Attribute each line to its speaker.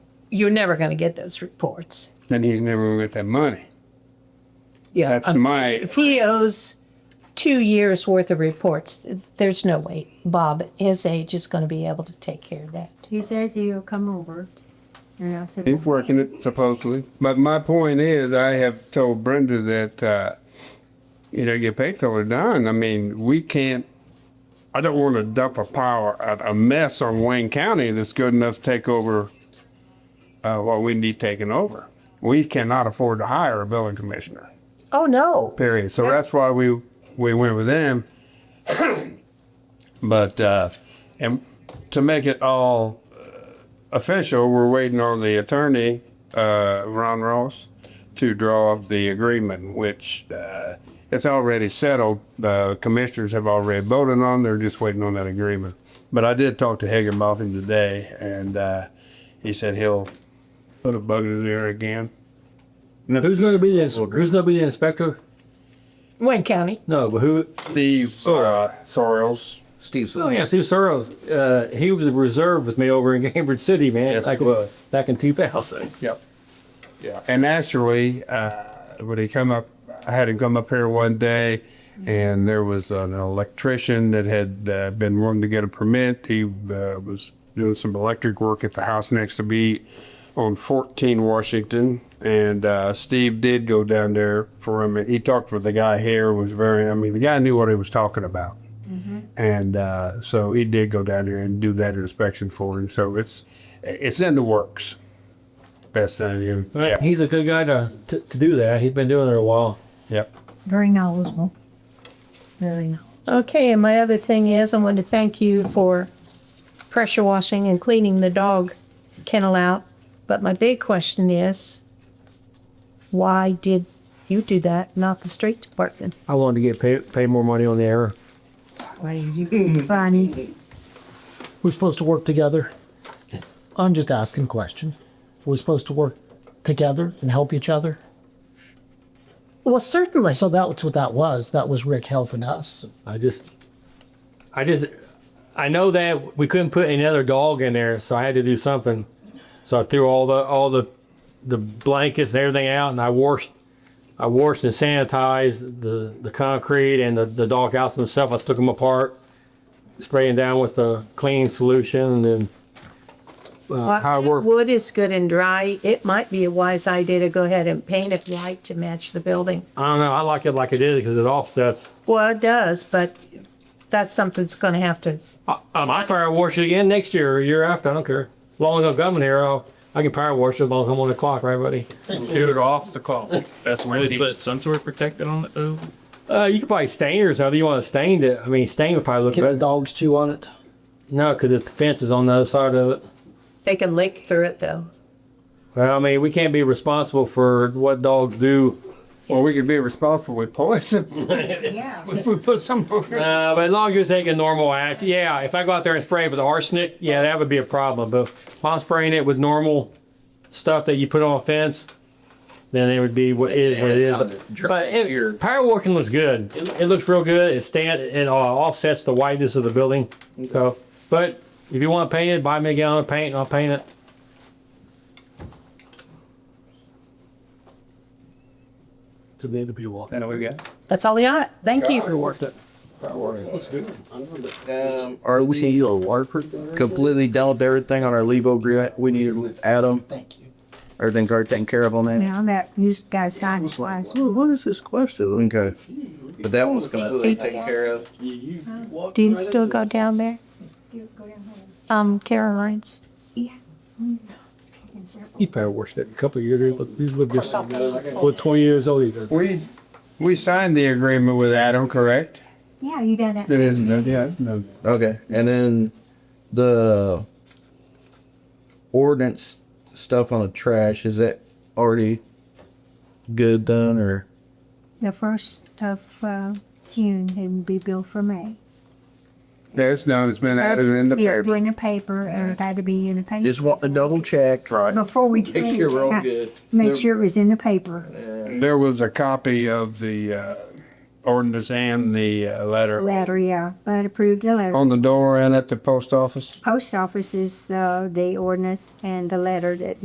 Speaker 1: you're never going to get those reports.
Speaker 2: then he's never going to get that money.
Speaker 1: Yeah.
Speaker 2: That's
Speaker 1: um,
Speaker 2: my,
Speaker 1: if he owes two years worth of reports, there's no way Bob, his age, is going to be able to take care of that.
Speaker 3: He says he'll come over. And I said,
Speaker 2: he's working it supposedly. But my point is, I have told Brenda that, uh, you know, get paid till they're done. I mean, we can't, I don't want to dump a power, a, a mess on Wayne County that's good enough to take over uh, what we need taken over. We cannot afford to hire a building commissioner.
Speaker 1: Oh no.
Speaker 2: period. So that's why we we went with them. but uh, and to make it all uh, official, we're waiting on the attorney uh, Ron Ross to draw up the agreement, which uh, it's already settled. The commissioners have already voted on. They're just waiting on that agreement. But I did talk to Higginbotham today, and uh, he said he'll put a bug in his ear again.
Speaker 4: Who's going to be the inspector? Who's going to be the inspector?
Speaker 1: Wayne County.
Speaker 4: No, but who?
Speaker 2: Steve uh, Sorrells.
Speaker 5: Steve
Speaker 4: Oh
Speaker 5: Sorrell.
Speaker 4: yeah, Steve Sorrells. Uh, he was a reserve with me over in Cambridge City, man. It's like uh, back in 2000.
Speaker 2: Yep. Yeah. And actually, uh, when he come up, I had him come up here one day, and there was an electrician that had uh, been wanting to get a permit. He uh, was doing some electric work at the house next to me on 14 Washington, and uh, Steve did go down there for him. He talked with the guy here. Was very. I mean, the guy knew what he was talking about. And uh, so he did go down there and do that inspection for him. So it's it's in the works best thing you. Yeah.
Speaker 4: He's a good guy to, to to do that. He's been doing it a while.
Speaker 2: Yep.
Speaker 3: very knowledgeable. Very knowledgeable.
Speaker 1: Okay, and my other thing is I want to thank you for pressure washing and cleaning the dog kennel out. But my big question is why did you do that, not the street department?
Speaker 6: I wanted to get paid pay more money on the error.
Speaker 3: Why did you funny?
Speaker 6: We're supposed to work together. I'm just asking question. We're supposed to work together and help each other.
Speaker 1: Well, certainly.
Speaker 6: So that's what that was. That was Rick helping us.
Speaker 4: I just, I just, I know that we couldn't put another dog in there, so I had to do something. So I threw all the all the the blankets and everything out, and I washed, I washed and sanitized the the concrete and the the dog house themselves. I took them apart, spraying down with a cleaning solution, and then how it worked.
Speaker 1: Wood is good and dry. It might be a wise idea to go ahead and paint it white to match the building.
Speaker 4: I don't know. I like it like it is because it offsets.
Speaker 1: Well, it does, but that's something that's going to have to.
Speaker 4: Um, I power wash it again next year or year after. I don't care. As long as I'm coming here, I'll, I can power wash it as long as I'm on the clock, right, buddy?
Speaker 7: Shoot it off the clock. That's when they put some sort of protectant on it though.
Speaker 4: Uh, you could probably stain it or something. You want to stain it? I mean, stain would probably look
Speaker 6: Can the
Speaker 4: better.
Speaker 6: dogs chew on it?
Speaker 4: No, because the fence is on the other side of it.
Speaker 1: They can lick through it though.
Speaker 4: Well, I mean, we can't be responsible for what dogs do.
Speaker 2: Well, we could be responsible with poison.
Speaker 3: Yeah.
Speaker 2: if we put some.
Speaker 4: Uh, but as long as you're taking normal act, yeah. If I go out there and spray it with arsenic, yeah, that would be a problem. But if I'm spraying it with normal stuff that you put on a fence, then it would be what it, what it
Speaker 5: Yeah,
Speaker 4: is.
Speaker 5: it's kinda
Speaker 4: But
Speaker 5: dry.
Speaker 4: it, power walking looks good. It, it looks real good. It stand it uh, offsets the whiteness of the building. So, but if you want to paint it, buy me a gallon of paint, and I'll paint it.
Speaker 6: To the end of your walk.
Speaker 2: Then we got.
Speaker 1: That's all he got. Thank you.
Speaker 5: Are we see you a LARPer? Um, Completely dealt with everything on our Levo agreement we needed with Adam. Thank you. Everything's already taken care of on that.
Speaker 3: Now that used guy signed twice.
Speaker 5: Well, what is this question? Okay. But that one's completely taken care of.
Speaker 1: Do you still go down there? Um, Caroline's?
Speaker 8: He power washed it a couple of years ago, but he lived just, well, 20 years old either.
Speaker 2: We we signed the agreement with Adam, correct?
Speaker 3: Yeah, you done that.
Speaker 2: That isn't. Yeah. No.
Speaker 5: Okay, and then the ordinance stuff on the trash, is that already good done or?
Speaker 3: The first of uh, June and be billed for May.
Speaker 2: There's none. It's been added in the
Speaker 3: It's
Speaker 2: paper.
Speaker 3: been in the paper and it had to be in the paper.
Speaker 5: Just want to double check. Right.
Speaker 3: Before we. do
Speaker 5: Make sure we're all
Speaker 3: anything,
Speaker 5: good.
Speaker 3: Make sure it was in the paper,
Speaker 2: There was a copy of the uh, ordinance and the uh, letter
Speaker 3: letter, yeah, but approved the letter.
Speaker 2: on the door and at the post office.
Speaker 3: Post office is uh, the ordinance and the letter that